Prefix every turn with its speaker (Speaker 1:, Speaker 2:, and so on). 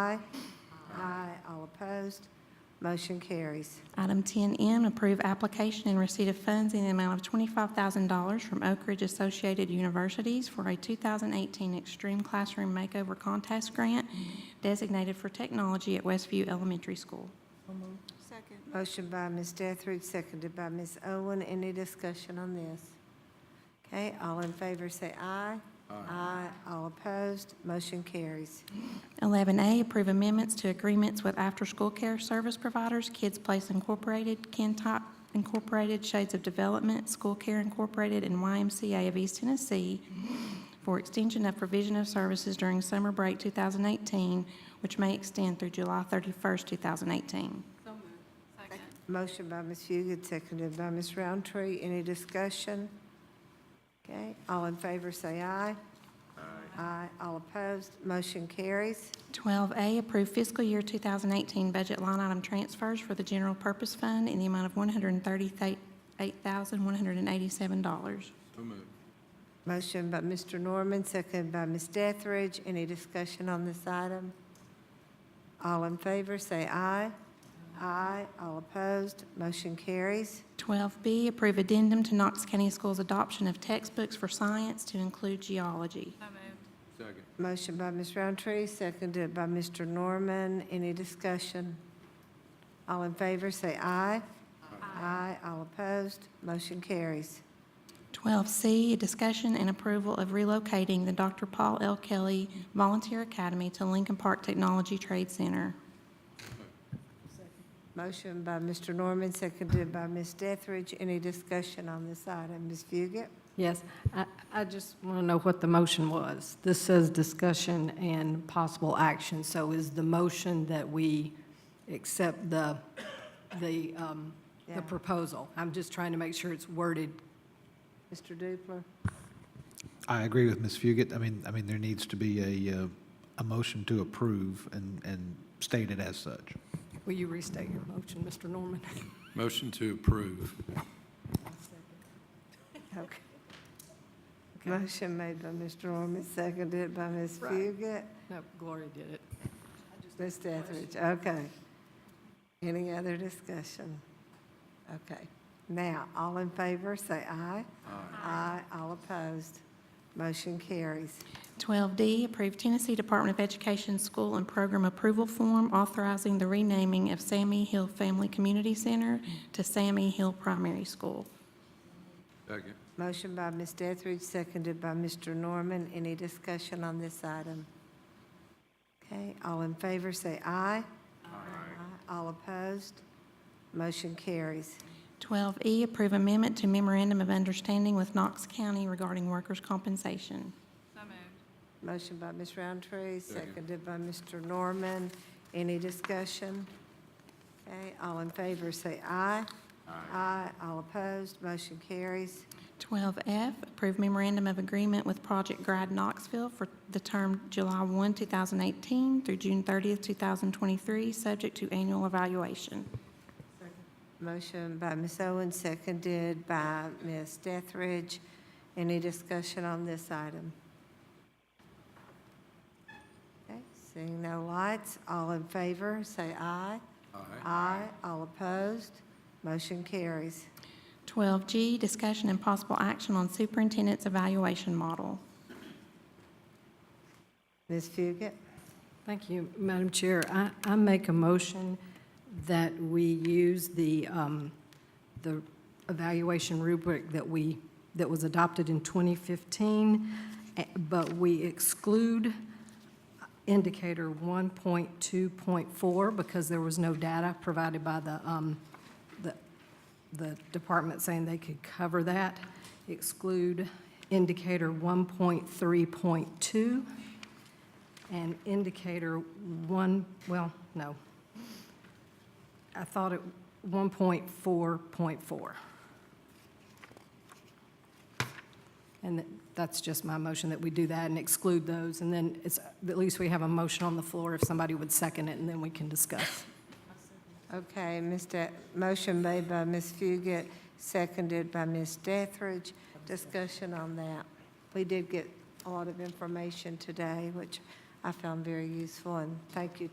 Speaker 1: Aye. Aye, all opposed. Motion carries.
Speaker 2: Item 10M, approve application and receipt of funds in the amount of $25,000 from Oak Ridge Associated Universities for a 2018 Extreme Classroom Makeover Contest Grant designated for technology at Westview Elementary School.
Speaker 3: Second.
Speaker 1: Motion by Ms. Deathridge, seconded by Ms. Owen. Any discussion on this? Okay, all in favor say aye. Aye. All opposed. Motion carries.
Speaker 2: 11A, approve amendments to agreements with after-school care service providers, Kids Place Incorporated, Kentop Incorporated, Shades of Development, School Care Incorporated, and YMCA of East Tennessee for extension of provision of services during summer break 2018, which may extend through July 31st, 2018.
Speaker 3: So moved. Second.
Speaker 1: Motion by Ms. Fugit, seconded by Ms. Roundtree. Any discussion? Okay, all in favor say aye. Aye. Aye, all opposed. Motion carries.
Speaker 2: 12A, approve fiscal year 2018 budget line item transfers for the general purpose fund in the amount of $138,187.
Speaker 4: So moved.
Speaker 1: Motion by Mr. Norman, seconded by Ms. Deathridge. Any discussion on this item? All in favor, say aye. Aye. All opposed, motion carries.
Speaker 2: 12B, approve addendum to Knox County Schools' adoption of textbooks for science to include geology.
Speaker 3: So moved.
Speaker 4: Second.
Speaker 1: Motion by Ms. Roundtree, seconded by Mr. Norman. Any discussion? All in favor, say aye. Aye. All opposed, motion carries.
Speaker 2: 12C, discussion and approval of relocating the Dr. Paul L. Kelly Volunteer Academy to Lincoln Park Technology Trade Center.
Speaker 1: Motion by Mr. Norman, seconded by Ms. Deathridge. Any discussion on this item? Ms. Fugit?
Speaker 5: Yes, I, I just want to know what the motion was. This says discussion and possible action, so is the motion that we accept the, the, um,
Speaker 1: Yeah.
Speaker 5: the proposal? I'm just trying to make sure it's worded.
Speaker 1: Mr. Dupler?
Speaker 6: I agree with Ms. Fugit. I mean, I mean, there needs to be a, uh, a motion to approve and, and state it as such.
Speaker 5: Will you restate your motion, Mr. Norman?
Speaker 4: Motion to approve.
Speaker 1: Okay. Motion made by Mr. Norman, seconded by Ms.
Speaker 5: Right.
Speaker 1: Fugit.
Speaker 5: No, Gloria did it.
Speaker 1: Ms. Etheridge, okay. Any other discussion? Okay. Now, all in favor, say aye. Aye. All opposed. Motion carries.
Speaker 2: 12D, approve Tennessee Department of Education School and Program Approval Form authorizing the renaming of Sammy Hill Family Community Center to Sammy Hill Primary School.
Speaker 4: Second.
Speaker 1: Motion by Ms. Etheridge, seconded by Mr. Norman. Any discussion on this item? Okay, all in favor, say aye. Aye. All opposed. Motion carries.
Speaker 2: 12E, E, approve amendment to memorandum of understanding with Knox County regarding workers' compensation.
Speaker 3: So moved.
Speaker 1: Motion by Ms. Roundtree,
Speaker 4: Second.
Speaker 1: seconded by Mr. Norman. Any discussion? Okay, all in favor, say aye. Aye. All opposed, motion carries.
Speaker 2: 12F, approve memorandum of agreement with Project Grad Knoxville for the term July 1, 2018 through June 30, 2023, subject to annual evaluation.
Speaker 1: Motion by Ms. Owen, seconded by Ms. Dethridge. Any discussion on this item? Okay, seeing no lights, all in favor, say aye.
Speaker 4: Aye.
Speaker 1: Aye. All opposed, motion carries.
Speaker 2: 12G, discussion and possible action on superintendent's evaluation model.
Speaker 1: Ms. Fugit?
Speaker 5: Thank you, Madam Chair. I, I make a motion that we use the, um, the evaluation rubric that we, that was adopted in 2015, eh, but we exclude indicator 1.2.4 because there was no data provided by the, um, the, the department saying they could cover that. Exclude indicator 1.3.2 and indicator one, well, no. I thought it 1.4.4. And th- that's just my motion that we do that and exclude those, and then it's, at least we have a motion on the floor if somebody would second it, and then we can discuss.
Speaker 1: Okay, Mr., motion made by Ms. Fugit, seconded by Ms. Dethridge. Discussion on that. We did get a lot of information today, which I found very useful, and thank you